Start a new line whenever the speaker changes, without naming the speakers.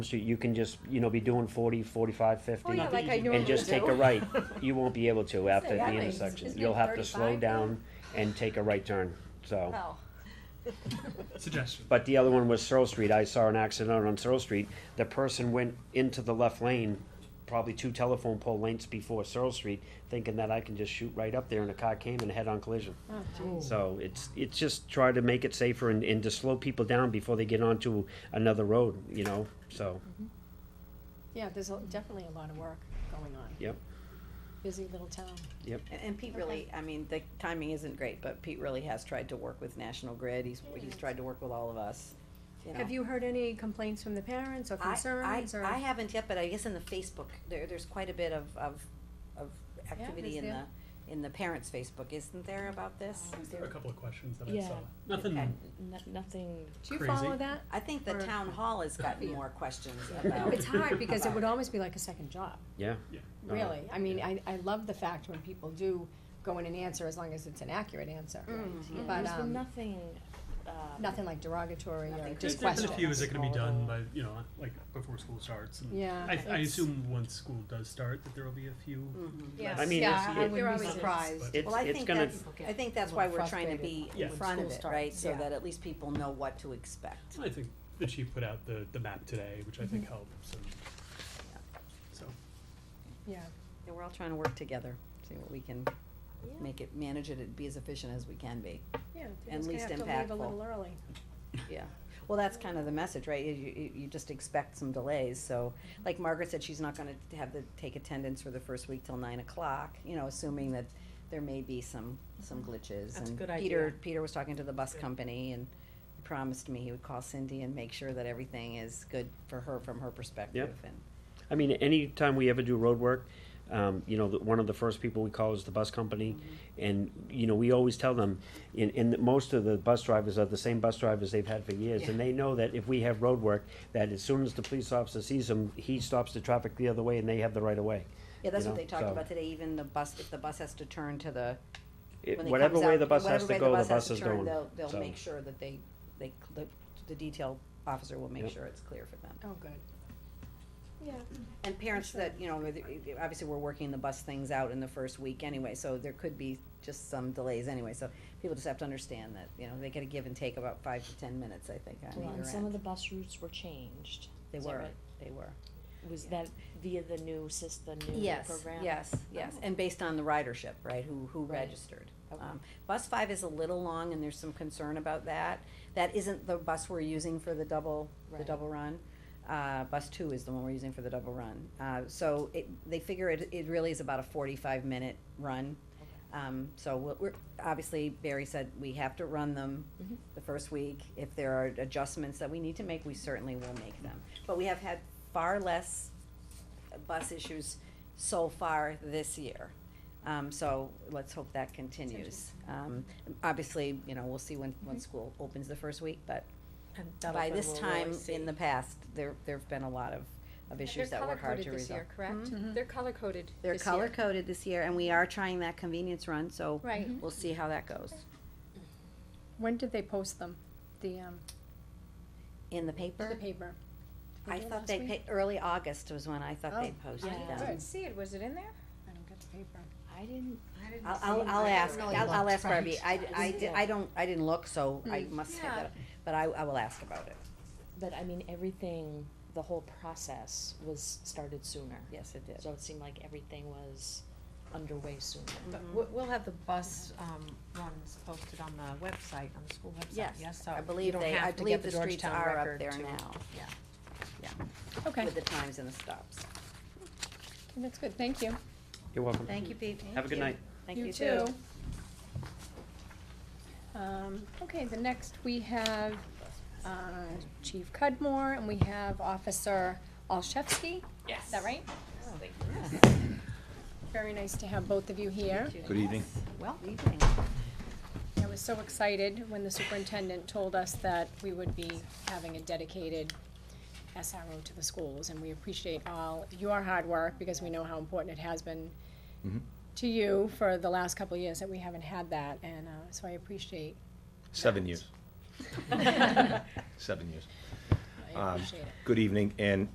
So you can just, you know, be doing 40, 45, 50,
Oh, yeah, like I normally
and just take a
do.
right. You won't be able to after
that
the
makes-
intersection.
isn't
You'll
it
have to slow
35 now?
down and take a right turn, so.
Oh,
Suggestion.
But the other one was Searle Street. I saw an accident on Searle Street. The person went into the left lane, probably two telephone pole lengths before Searle Street, thinking that I can just shoot right up there and a car came and head on collision.
Oh,
So it's, it's just try to make it safer and, and to slow people down before they get onto another road, you know, so,
Mm-hmm.
Yeah, there's a- definitely a lot of work going on.
yep,
Busy little town.
yep.
And- And Pete really, I mean, the timing isn't great, but Pete really has tried to work with National Grid, he's, he's tried to work with all of us, you know.
Have you heard any complaints from the parents or
I- I-
concerns or?
I haven't yet, but I guess in the Facebook, there, there's quite a bit of, of, of activity
is
in the,
there?
in the parents' Facebook, isn't there about this?
Oh, Is there a couple of questions that I
Yeah.
saw? Nothing.
Okay.
N- nothing.
Do you
Crazy.
follow that?
I think the
Or-
town hall has gotten more questions about.
It's hard because it would almost be like a second job,
Yeah.
Yeah.
Uh-huh.
Uh,
really. I mean, I, I love the fact when people do go in and answer as long as it's an accurate answer.
Mm. Mm-hmm.
Yeah,
But,
there's
um,
been nothing. Um,
Nothing like derogatory or
Nothing
just
There's been
questions.
a few that can be done
Questions.
by, you know, like before school starts. and
Yeah,
I, I
it's-
assume once school does start, that there will be a few.
Mm.
yeah.
I mean, it's-
I
it-
wouldn't be
It's-
surprised.
It's,
Mm-hmm. Well, I
it's
think
gonna,
that's, I think that's why we're trying to be
Yeah.
in front of
School
it, right,
starts,
so
yeah.
that at least people know what to expect.
I think the chief put out the, the map today, which I think helps. and- So,
Yeah,
Yeah, we're all trying to work together, see what we can, make it, manage it, and be as efficient as we can be.
yeah.
And
Just gonna
least
have to leave a
impactful.
little early.
Yeah, well, that's kind of the message, right? You, you, you just expect some delays, so,
Mm-hmm.
like Margaret said, she's not gonna have to take attendance for the first week till nine o'clock, you know, assuming that there may be some, some glitches.
Mm-hmm. That's a
And
good
Peter,
idea.
Peter was talking to the bus company and he promised me he would call Cindy and make sure that everything is good for her, from her perspective, and,
I mean, anytime we ever do road work, um, you know, the, one of the first people we call is the bus company. And, you know, we always tell them, and, and most of the bus drivers are the same bus drivers they've had for years. And they know that if we have road work, that as soon as the police officer sees them, he stops the traffic the other way and they have the right of way.
yeah, that's
you
what
know,
they talked
so-
about today, even the bus, if the bus has to turn to the,
It-
when it
Whatever
comes
way
out-
the bus has to
whatever way
go, the bus
has
is
to turn,
going.
They'll, they'll
So,
make sure that they, they, the, the detail officer will make
Yep.
sure it's clear for them.
Oh, good. Yeah.
And parents
sure.
that, you know, with- obviously, we're working the bus things out in the first week anyway, so there could be just some delays anyway, so people just have to understand that, you know, they get a give and take about five to ten minutes, I think, on
Well, and
either
some of
end.
the bus routes were changed.
They
Is that
were,
right?
they were.
Was
Yeah.
that via the new system, the new
Yes,
program?
yes, yes, and based on the ridership, Oh. right, who, who
Right.
registered.
Okay.
Um, Bus five is a little long, and there's some concern about that. That isn't the bus we're using for the double, the
Right.
double run. Uh, bus two is the one we're using for the double run. Uh, so it, they figure it, it really is about a forty-five minute run. Um, so we're, we're, obviously Barry said we have to run them
Mhm.
the first week. If there are adjustments that we need to make, we certainly will make them. But we have had far less bus issues so far this year. Um, so let's hope that continues. Mm-hmm. Um, obviously, you know, we'll see when, when school opens the first week, but
And
by this time in the past, there, there've been a lot of, of
They're
issues that were
color
hard
coded
to
this
resolve. Mm-hmm.
year, correct? They're color coded
They're color coded this year and we are trying that convenience run, so
Right.
we'll see how that goes.
When did they post them? The, um,
In the
the
paper?
paper? Did
I
do it
thought
last
they,
week?
pa- early August was when I thought they
Oh,
posted
yeah.
them.
Didn't see it, was it in there?
I don't get the paper.
I didn't.
I'll, I'll, I'll ask,
really
I'll, I'll
looked,
ask Barbie, I, I,
Yeah.
di- I don't, I didn't look, so I must have
Yeah.
that, but I, I will ask about it,
But I mean, everything, the whole process was started sooner.
yes, it did.
So it seemed like everything was underway sooner.
But
Mm-hmm.
we'll, we'll have the bus, um, ones posted on the website, on the school website,
Yes,
yes, so
I
you
believe
don't
they, I
have to get
believe
the
the streets
Georgetown
are up
record to.
there now,
Yeah.
Okay,
with the times and the stops.
that's good, thank you.
You're welcome.
Thank you, Pete.
Have a good night.
Mm-hmm. Thank you too.
Um, okay, the next we have, uh, Chief Cudmore and we have Officer Olszewski. Yes. Is that right? Very nice to have both of you here.
Good evening.
Well,
I was so excited when the superintendent told us that we would be having a dedicated SRO to the schools, and we appreciate all your hard work, because we know how important it has been
Mm-hmm.
to you for the last couple of years that we haven't had that, and, uh, so I appreciate,
Seven years. Seven years.
I appreciate it.
Good evening, and